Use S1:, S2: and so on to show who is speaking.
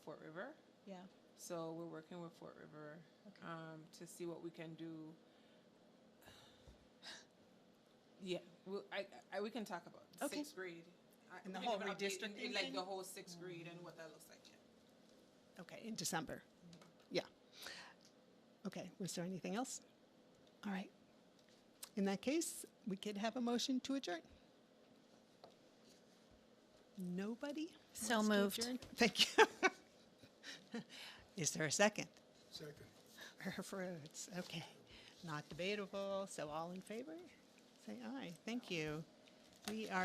S1: Yeah.
S2: So we're working with Fort River
S1: Okay.
S2: um, to see what we can do. Yeah, we'll, I, I, we can talk about
S1: Okay.
S2: sixth grade. I-
S1: And
S2: we
S1: the
S2: can
S1: whole
S2: give an update in-
S1: redistricting
S2: in, Like
S1: thing?
S2: the whole sixth grade and what that looks like, yeah.
S1: Okay, in December. Yeah. Okay, was there anything else? All right. In that case, we could have a motion to adjourn. Nobody?
S3: So
S1: wants to
S3: moved.
S1: adjourn? Thank you. Is there a second?
S4: Second.
S1: Fruits, okay. Not debatable, so all in favor? Say aye. Thank you. We are.